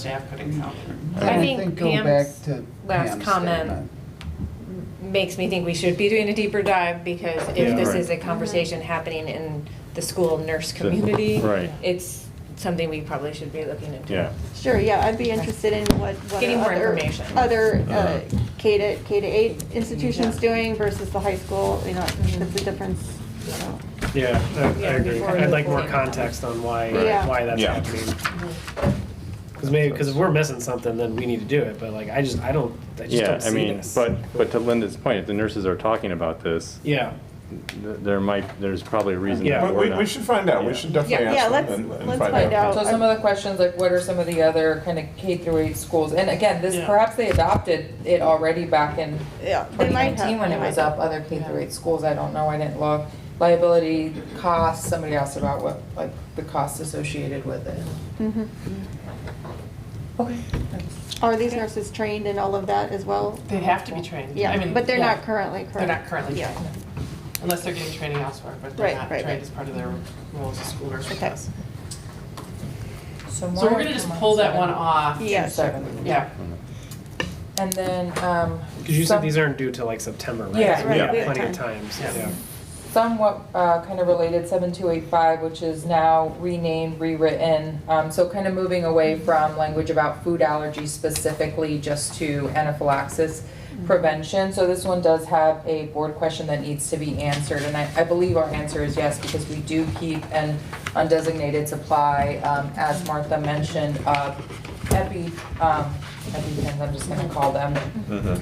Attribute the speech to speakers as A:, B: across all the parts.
A: staff could encounter.
B: I
C: would
B: think
C: Go
B: Pam's
C: back to
B: last
C: Pam's
B: comment-
C: statement.
B: makes me think we should be doing a deeper dive because
D: Yeah.
B: if this
D: Right.
B: is a conversation happening in the school nurse community,
D: Right.
B: it's something we probably should be looking into.
D: Yeah.
E: Sure, yeah, I'd be interested in what, what
B: Getting more
E: other-
B: information.
E: Other,
D: Uh.
E: uh, K to, K to eight institutions doing versus the high school, you know, that's the difference, you know.
D: Yeah,
F: I I
B: Yeah,
F: agree.
B: before
F: I'd like more
B: the-
F: context on why,
E: Right.
F: why that's
D: Yeah.
F: happening. Because maybe, because if we're missing something, then we need to do it, but like, I just, I don't, I just
D: Yeah,
F: don't
D: I
F: see
D: mean,
F: this.
D: but, but to Linda's point, if the nurses are talking about this,
F: Yeah,
D: th- there might, there's probably a reason
F: Yeah.
D: that
G: But
D: we're
G: we,
D: not.
G: we should find out, we should definitely
E: Yeah, yeah,
G: ask
E: let's-
G: them and- and
E: let's
G: find
E: find
G: out.
E: out.
H: So some of the questions, like what are some of the other kind of K through eight schools? And again, this,
A: Yeah.
H: perhaps they adopted it already back in
E: Yeah, they might have.
H: 2019 when
E: they
H: it
E: might
H: was
E: have.
H: up, other K through eight schools, I don't know, I didn't look. Liability, costs, somebody asked about what, like the costs associated with it.
E: Mhm.
H: Okay.
E: Are these nurses trained in all of that as well?
A: They have to be trained. I
E: Yeah,
A: mean,
E: but they're
A: yeah.
E: not currently, correct?
A: They're not currently
E: Yeah.
A: trained, unless they're getting training elsewhere, but
E: Right,
A: they're not
E: right,
A: trained
E: right.
A: as part of their role as a school nurse with
E: Okay.
A: us. So we're gonna just pull that one off.
E: Yeah, sure.
A: Yeah.
H: And then, um.
F: because you said
H: some-
F: these aren't due till like September, right?
H: Yeah.
F: So We
E: Right,
F: got
E: we have
F: plenty of
E: time.
F: times,
A: Yeah.
F: yeah.
H: somewhat uh, kind of related, 7285, which is now renamed, rewritten. Um, So kind of moving away from language about food allergies specifically just to anaphylaxis prevention. So this one does have a board question that needs to be answered. And I I believe our answer is yes, because we do keep an undesignated supply, um, as Martha mentioned, of epi, um, EpiPens, I'm just going to call them,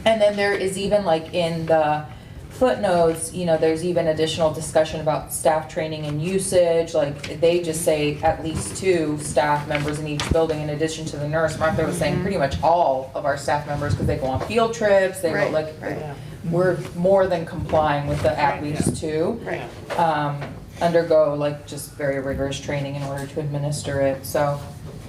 H: and then there is even like in the footnotes, you know, there's even additional discussion about staff training and usage, like they just say at least two staff members in each building in addition to the nurse. Martha was
E: Mm-hmm.
H: saying pretty much all of our staff members, because they go on field trips, they go
E: Right,
H: like,
E: right.
A: Yeah.
H: we're more than complying with the at least two.
E: Right.
A: Yeah.
H: Um, undergo like just very rigorous training in order to administer it, so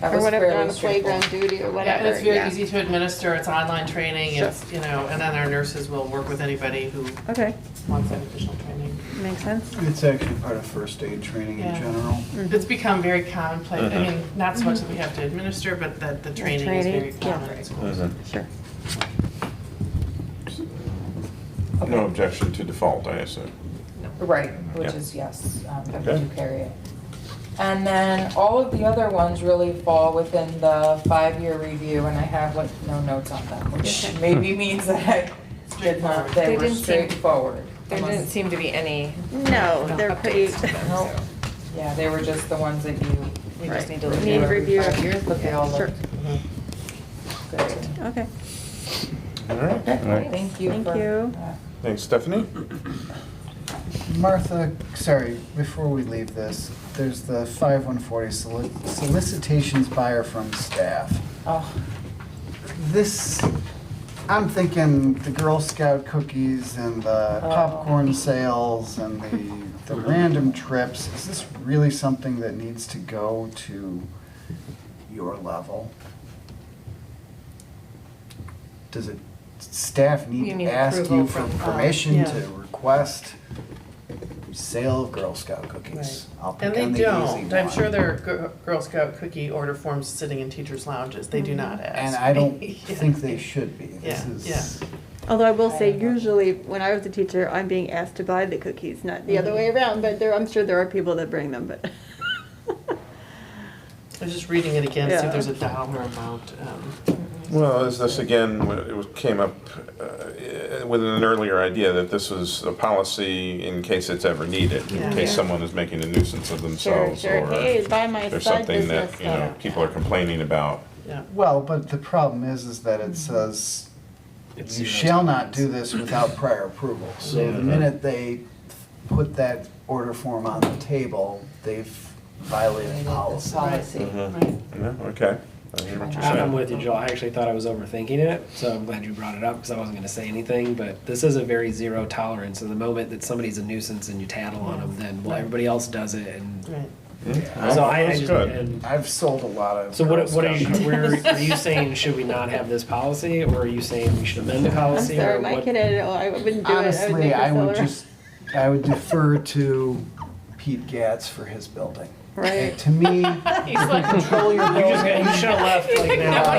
H: that
E: Or
H: was
E: whatever, they're on
H: fairly
E: the playground
H: straightforward.
E: duty or
A: Yeah,
E: whatever,
A: and it's very
E: yeah.
A: easy to administer, it's online training, it's, you know, and then our nurses will work with anybody who
E: Okay,
A: wants that additional training.
E: makes sense.
C: It's actually part of first aid training in
A: Yeah.
C: general.
E: Mm-hmm.
A: It's become very commonplace, I mean, not so much that we have to administer, but that the training is very
E: training, yeah.
A: common in schools.
E: Sure.
G: No objection to default, I assume.
H: Right, which
G: Yeah.
H: is yes, um, that we
G: Okay.
H: do carry it. And then all of the other ones really fall within the five-year review, and I have like no notes on them, which maybe means that I did not, they
B: They
H: were
B: didn't seem-
H: straightforward.
B: There
H: unless-
B: didn't seem to be any,
E: No, they're pretty,
H: Nope. Yeah, they were just the ones that you.
B: we just
E: Right.
B: need to look
E: Need
B: at.
E: review.
H: Five years, but they all
E: Sure.
H: looked good.
E: okay.
G: All right,
H: Thank you
E: Thank
H: for
E: you.
H: that.
G: thanks, Stephanie.
C: Martha, sorry, before we leave this, there's the 5140 solic- solicitations by or from staff.
H: Oh,
C: This, I'm thinking the Girl Scout cookies and the
B: Oh.
C: popcorn sales and the, the random trips. Is this really something that needs to go to your level? Does it, staff
B: You
C: need
B: mean
C: to ask
B: approval
C: you for
B: from, uh,
C: permission
A: yeah.
C: to request sale of Girl Scout cookies? I'll pick
A: And
C: on
A: they
C: the easy
A: don't, I'm
C: one.
A: sure there are Gir- Girl Scout cookie order forms sitting in teachers' lounges, they do not ask.
C: Mm-hmm. And I don't
A: Yeah.
C: think they should be. This
A: Yeah,
C: is,
E: Although I will
H: I
E: say,
H: don't know.
E: usually, when I was a teacher, I'm being asked to buy the cookies, not the other way around, but there, I'm sure there are people that bring them, but.
A: I was just reading it again, see
E: Yeah.
A: if there's a dollar amount. um,
G: Well, is this again, it was- came up uh, with an earlier idea that this was a policy in case it's ever needed,
A: Yeah.
G: in case
A: Yeah.
G: someone is making a nuisance of
E: Sure,
G: themselves
E: sure, hey,
G: or
E: buy my
G: there's
E: side
G: something
E: business
G: that, you know,
E: stuff.
G: people are complaining about.
A: Yeah,
C: well, but the problem is, is that it says
F: It's
C: You
F: zero
C: shall not
F: tolerance.
C: do this without prior approval. So the minute they put that order form on the table, they've violated policy.
H: Policy.
G: Mm-hmm.
A: right.
G: No, okay. I hear what you're
F: I- I'm
G: saying.
F: with you, Joel. I actually thought I was overthinking it, so I'm glad you brought it up because I wasn't going to say anything. But this is a very zero tolerance. And the moment that somebody's a nuisance and you tattle on them, then well, everybody else does it. And
A: Right.
G: Yeah,
F: so I, I
G: that's
F: just.
G: good.
F: And,
C: I've sold a lot of.
F: so what,
C: Girl
F: what are you?
C: Scout
F: Where, are you saying should we not have this policy, or are you saying we should amend the
E: I'm
F: policy?
E: sorry,
F: or
E: my
F: what-
E: kid, I don't know, I wouldn't do it. I would make
C: Honestly,
E: her
C: I
E: sell
C: would
E: her-
C: just, I would defer to Pete Gatz for his building.
I: right?
J: To me,
K: He's like,
J: control your
C: You just got, you should have left like now.